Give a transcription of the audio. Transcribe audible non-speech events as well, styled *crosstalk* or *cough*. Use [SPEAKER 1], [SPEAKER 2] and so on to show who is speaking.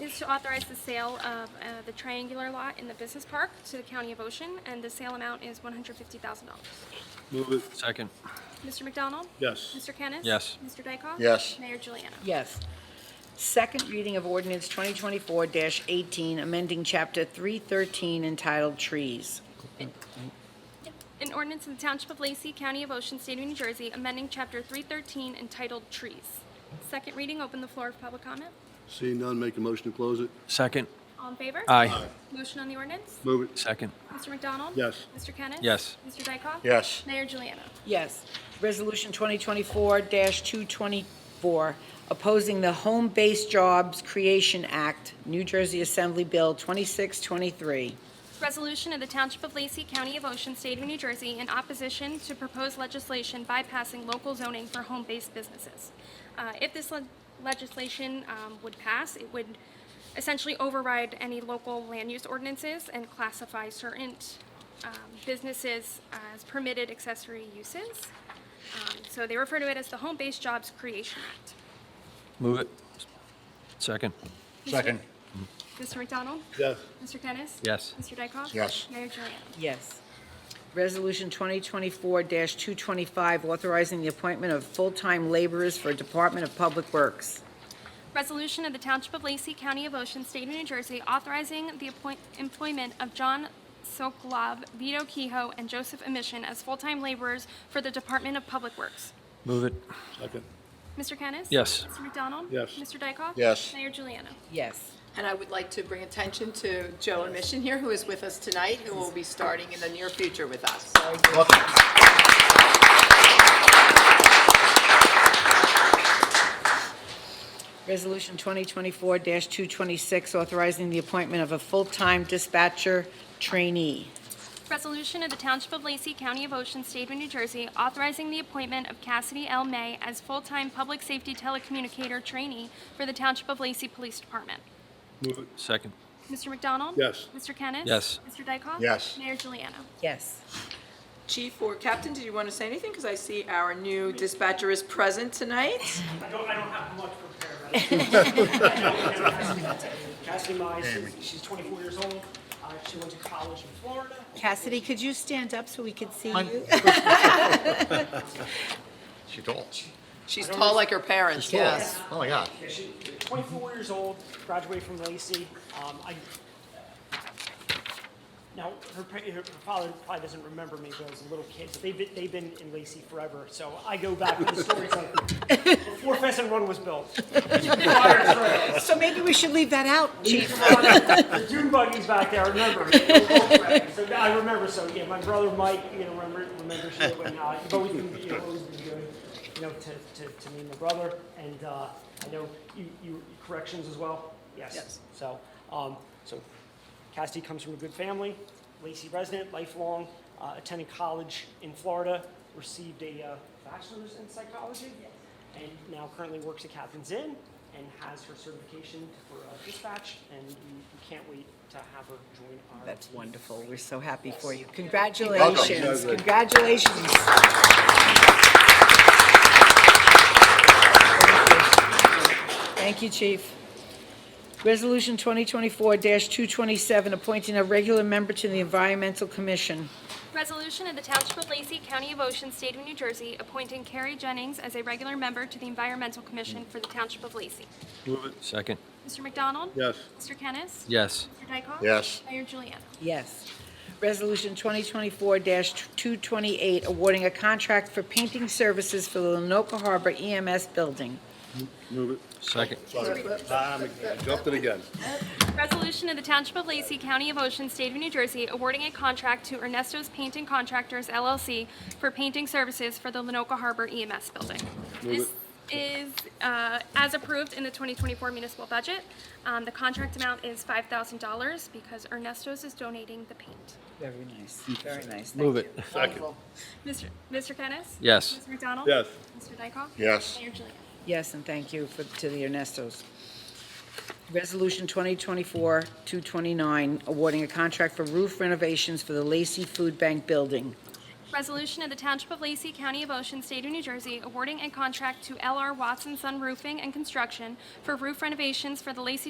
[SPEAKER 1] is to authorize the sale of uh, the triangular lot in the business park to the County of Ocean, and the sale amount is $150,000.
[SPEAKER 2] Move it.
[SPEAKER 3] Second.
[SPEAKER 1] Mr. McDonald?
[SPEAKER 2] Yes.
[SPEAKER 1] Mr. Kennis?
[SPEAKER 3] Yes.
[SPEAKER 1] Mr. Dykoff?
[SPEAKER 4] Yes.
[SPEAKER 1] Mayor Juliana?
[SPEAKER 5] Yes. Second reading of ordinance 2024-18, amending Chapter 313 entitled Trees.
[SPEAKER 1] An ordinance of the Township of Lacey, County of Ocean, State of New Jersey, amending Chapter 313 entitled Trees. Second reading, open the floor for public comment.
[SPEAKER 2] Seeing none, make a motion to close it.
[SPEAKER 3] Second.
[SPEAKER 1] All in favor?
[SPEAKER 3] Aye.
[SPEAKER 1] Motion on the ordinance?
[SPEAKER 2] Move it.
[SPEAKER 3] Second.
[SPEAKER 1] Mr. McDonald?
[SPEAKER 2] Yes.
[SPEAKER 1] Mr. Kennis?
[SPEAKER 3] Yes.
[SPEAKER 1] Mr. Dykoff?
[SPEAKER 4] Yes.
[SPEAKER 1] Mayor Juliana?
[SPEAKER 5] Yes. Resolution 2024-224, opposing the Home Based Jobs Creation Act, New Jersey Assembly Bill 2623.
[SPEAKER 1] Resolution of the Township of Lacey, County of Ocean, State of New Jersey, in opposition to proposed legislation bypassing local zoning for home-based businesses. Uh, If this le- legislation um, would pass, it would essentially override any local land use ordinances and classify certain um, businesses as permitted accessory uses. Um, So they refer to it as the Home-Based Jobs Creation Act.
[SPEAKER 3] Move it. Second.
[SPEAKER 4] Second.
[SPEAKER 1] Mr. McDonald?
[SPEAKER 2] Yes.
[SPEAKER 1] Mr. Kennis?
[SPEAKER 3] Yes.
[SPEAKER 1] Mr. Dykoff?
[SPEAKER 4] Yes.
[SPEAKER 1] Mayor Juliana?
[SPEAKER 5] Yes. Resolution 2024-225, authorizing the appointment of full-time laborers for Department of Public Works.
[SPEAKER 1] Resolution of the Township of Lacey, County of Ocean, State of New Jersey, authorizing the appoint- employment of John Sokolov, Vito Kehoe, and Joseph Emission as full-time laborers for the Department of Public Works.
[SPEAKER 3] Move it.
[SPEAKER 2] Second.
[SPEAKER 1] Mr. Kennis?
[SPEAKER 3] Yes.
[SPEAKER 1] Mr. McDonald?
[SPEAKER 2] Yes.
[SPEAKER 1] Mr. Dykoff?
[SPEAKER 4] Yes.
[SPEAKER 1] Mayor Juliana?
[SPEAKER 5] Yes.
[SPEAKER 6] And I would like to bring attention to Joe Mission here, who is with us tonight, who will be starting in the near future with us.
[SPEAKER 5] Resolution 2024-226, authorizing the appointment of a full-time dispatcher trainee.
[SPEAKER 1] Resolution of the Township of Lacey, County of Ocean, State of New Jersey, authorizing the appointment of Cassidy L. May as full-time public safety telecommunicator trainee for the Township of Lacey Police Department.
[SPEAKER 2] Move it.
[SPEAKER 3] Second.
[SPEAKER 1] Mr. McDonald?
[SPEAKER 2] Yes.
[SPEAKER 1] Mr. Kennis?
[SPEAKER 3] Yes.
[SPEAKER 1] Mr. Dykoff?
[SPEAKER 4] Yes.
[SPEAKER 1] Mayor Juliana?
[SPEAKER 5] Yes.
[SPEAKER 6] Chief or Captain, did you want to say anything? Because I see our new dispatcher is present tonight.
[SPEAKER 7] I don't, I don't have much prepared. Cassidy Mize, she's 24 years old. Uh, She went to college in Florida.
[SPEAKER 5] Cassidy, could you stand up so we could see you? *laughs*
[SPEAKER 4] She told.
[SPEAKER 6] She's tall like her parents, yes.
[SPEAKER 4] Oh, yeah.
[SPEAKER 7] Yeah, She's 24 years old, graduated from Lacey. Um, I- Now, her pa- her father probably doesn't remember me, but I was a little kid, but they've been, they've been in Lacey forever. So I go back with the stories like, before Pheasant Run was built. Prior to-
[SPEAKER 5] So maybe we should leave that out, Chief.
[SPEAKER 7] *laughs* The dune buggies back there, I remember. So I remember, so, yeah, my brother Mike, you know, remember, remembers you, and, uh, you've always been, you've always been good, you know, to, to, to me and my brother, and, uh, I know you, you, corrections as well? Yes.
[SPEAKER 6] Yes.
[SPEAKER 7] So, um, so Cassidy comes from a good family, Lacey resident, lifelong, uh, attended college in Florida, received a uh, bachelor's in psychology, and now currently works at Captain's Inn and has her certification for uh, dispatch, and we we can't wait to have her join our.
[SPEAKER 5] That's
[SPEAKER 7] team.
[SPEAKER 5] wonderful. We're so happy for you. Congratulations. Congratulations. Thank you, Chief. Resolution 2024-227, appointing a regular member to the Environmental Commission.
[SPEAKER 1] Resolution of the Township of Lacey, County of Ocean, State of New Jersey, appointing Carrie Jennings as a regular member to the Environmental Commission for the Township of Lacey.
[SPEAKER 2] Move it.
[SPEAKER 3] Second.
[SPEAKER 1] Mr. McDonald?
[SPEAKER 2] Yes.
[SPEAKER 1] Mr. Kennis?
[SPEAKER 3] Yes.
[SPEAKER 1] Mr. Dykoff?
[SPEAKER 4] Yes.
[SPEAKER 1] Mayor Juliana?
[SPEAKER 5] Yes. Resolution 2024-228, awarding a contract for painting services for the Lenoka Harbor EMS building.
[SPEAKER 2] Move it.
[SPEAKER 3] Second.
[SPEAKER 2] Sorry. Ah, I'm- Jumped it again.
[SPEAKER 1] Resolution of the Township of Lacey, County of Ocean, State of New Jersey, awarding a contract to Ernesto's Painting Contractors LLC for painting services for the Lenoka Harbor EMS building. This is uh, as approved in the 2024 municipal budget. Um, The contract amount is $5,000 because Ernesto's is donating the paint.
[SPEAKER 5] Very nice, very nice.
[SPEAKER 3] Move it.
[SPEAKER 2] Second.
[SPEAKER 1] Mr. Mr. Kennis?
[SPEAKER 3] Yes.
[SPEAKER 1] Mr. McDonald?
[SPEAKER 2] Yes.
[SPEAKER 1] Mr. Dykoff?
[SPEAKER 4] Yes.
[SPEAKER 1] Mayor Juliana?
[SPEAKER 5] Yes, and thank you for, to the Ernestos. Resolution 2024-229, awarding a contract for roof renovations for the Lacey Food Bank building.
[SPEAKER 1] Resolution of the Township of Lacey, County of Ocean, State of New Jersey, awarding a contract to L.R. Watson Sun Roofing and Construction for roof renovations for the Lacey